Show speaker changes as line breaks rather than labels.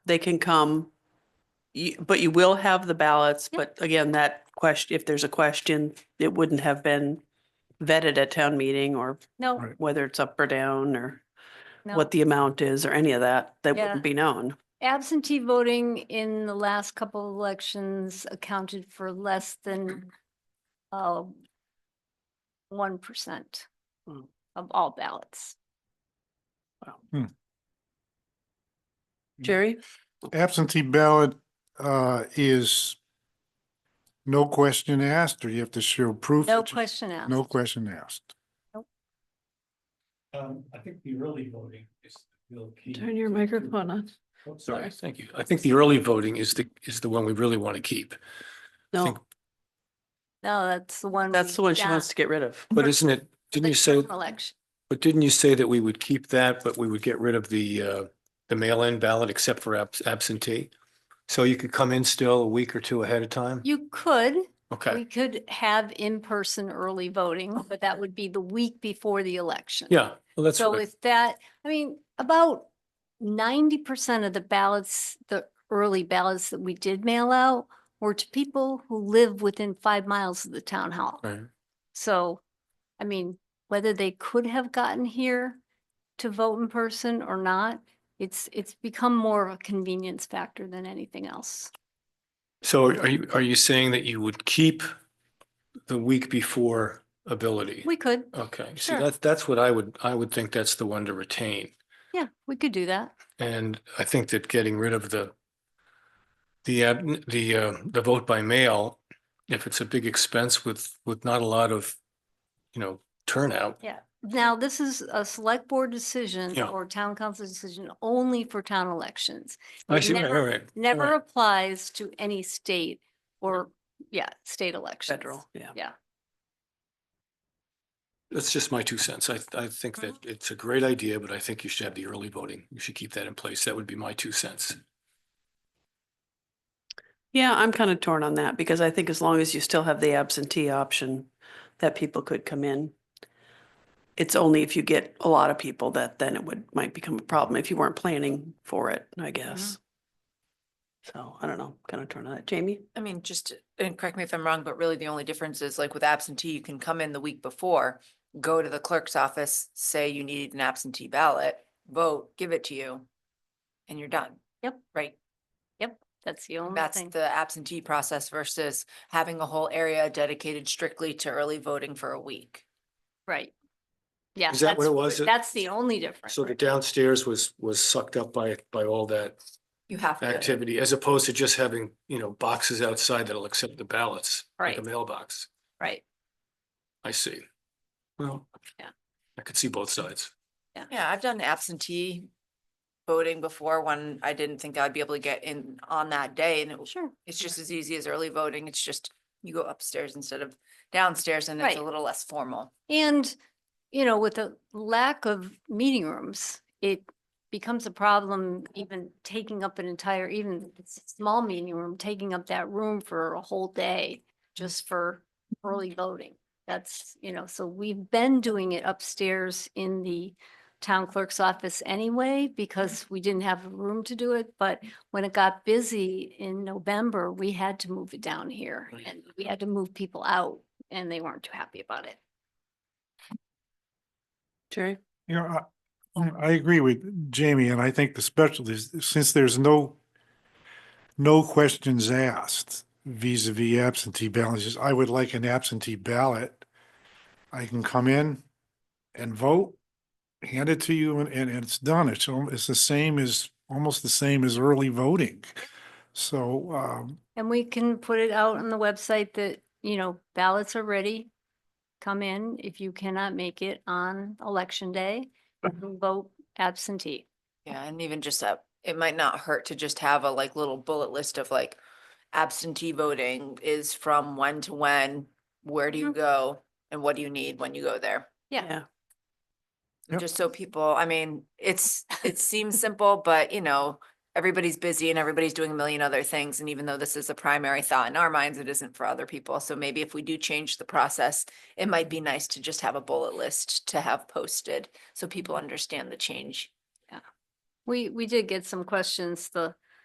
they can come. You, but you will have the ballots,
Yep.
but again, that question, if there's a question, it wouldn't have been vetted at town meeting or
No,
Right.
whether it's up or down or
no.
what the amount is or any of that, that
Yeah.
wouldn't be known.
Absentee voting in the last couple of elections accounted for less than one percent
Mm.
of all ballots.
Jerry?
Absentee ballot uh is no question asked, or you have to show proof?
No
that you-
question asked.
No question asked.
Um, I think the early voting is the real key.
Turn your
to- to-
microphone on.
Oh, Sorry, thank you. I think the early voting is the, is the one we really want to keep.
No,
think-
No, that's the one.
that's
we
the one she
got
wants to get rid of.
But isn't it,
for
didn't
the
you say,
general Election.
but didn't you say that we would keep that, but we would get rid of the, uh, the mail-in ballot except for abs- absentee? So you could come in still a week or two ahead of time?
You could, we
Okay,
could have in-person early voting, but that would be the week before the election.
yeah, well, that's,
So
what I-
with that, I mean, about ninety percent of the ballots, the early ballots that we did mail out were to people who live within five miles of the town hall.
right.
So, I mean, whether they could have gotten here to vote in person or not, it's, it's become more of a convenience factor than anything else.
So are you, are you saying that you would keep the week before ability?
We could,
Okay, see,
Sure.
that's, that's what I would, I would think that's the one to retain.
yeah, we could do that.
And I think that getting rid of the the ab- the uh, the vote by mail, if it's a big expense with with not a lot of, you know, turnout.
Yeah. Now, this is a select board decision
Yeah.
or town council decision only for town elections.
I
It
see, right,
never-
right, right,
never
right.
applies to any state or, yeah, state elections.
Federal, yeah.
That's just my two cents. I I think that
Mm-hmm.
it's a great idea, but I think you should have the early voting. You should keep that in place. That would be my two cents.
Yeah, I'm kind of torn on that because I think as long as you still have the absentee option that people could come in. It's only if you get a lot of people that then it would, might become a problem if you weren't planning for it, I guess. So I don't know, kind of torn on that. Jamie?
I mean, just, and correct me if I'm wrong, but really the only difference is like with absentee, you can come in the week before, go to the clerk's office, say you needed an absentee ballot, vote, give it to you, and you're done.
Yep.
Right?
That's the only
That's
thing.
the absentee process versus having a whole area dedicated strictly to early voting for a week.
Right. Yeah.
Is that what
that's-
it was?
That's the only difference.
So the downstairs was was sucked up by by all that
You have to.
activity, as opposed to just having, you know, boxes outside that'll accept the ballots, like a
Right.
mailbox.
Right.
I see. Well.
Yeah.
I could see both sides.
Yeah, I've done absentee voting before when I didn't think I'd be able to get in on that day and it was
Sure.
It's just as easy as early voting. It's just you go upstairs instead of downstairs and it's a
Right.
little less formal.
And, you know, with the lack of meeting rooms, it becomes a problem even taking up an entire, even if it's a small meeting room, taking up that room for a whole day just for early voting. That's, you know, so we've been doing it upstairs in the town clerk's office anyway because we didn't have room to do it. But when it got busy in November, we had to move it down here
Right.
and we had to move people out and they weren't too happy about it.
Jerry?
You know, I- I agree with Jamie, and I think the special is, since there's no no questions asked vis a vis absentee balances, I would like an absentee ballot. I can come in and vote, hand it to you, and, and and it's done. It's, al- it's the same as, almost the same as early voting. So, um,
And we can put it out on the website that, you know, ballots are ready. Come in if you cannot make it on election day, you can vote absentee.
Yeah, and even just that, it might not hurt to just have a like little bullet list of like absentee voting is from when to when, where do you
Mhm.
go and what do you need when you go there?
Yeah.
Yep.
Just so people, I mean, it's, it seems simple, but you know, everybody's busy and everybody's doing a million other things. And even though this is a primary thought in our minds, it isn't for other people. So maybe if we do change the process, it might be nice to just have a bullet list to have posted so people understand the change.
We, we did get some questions the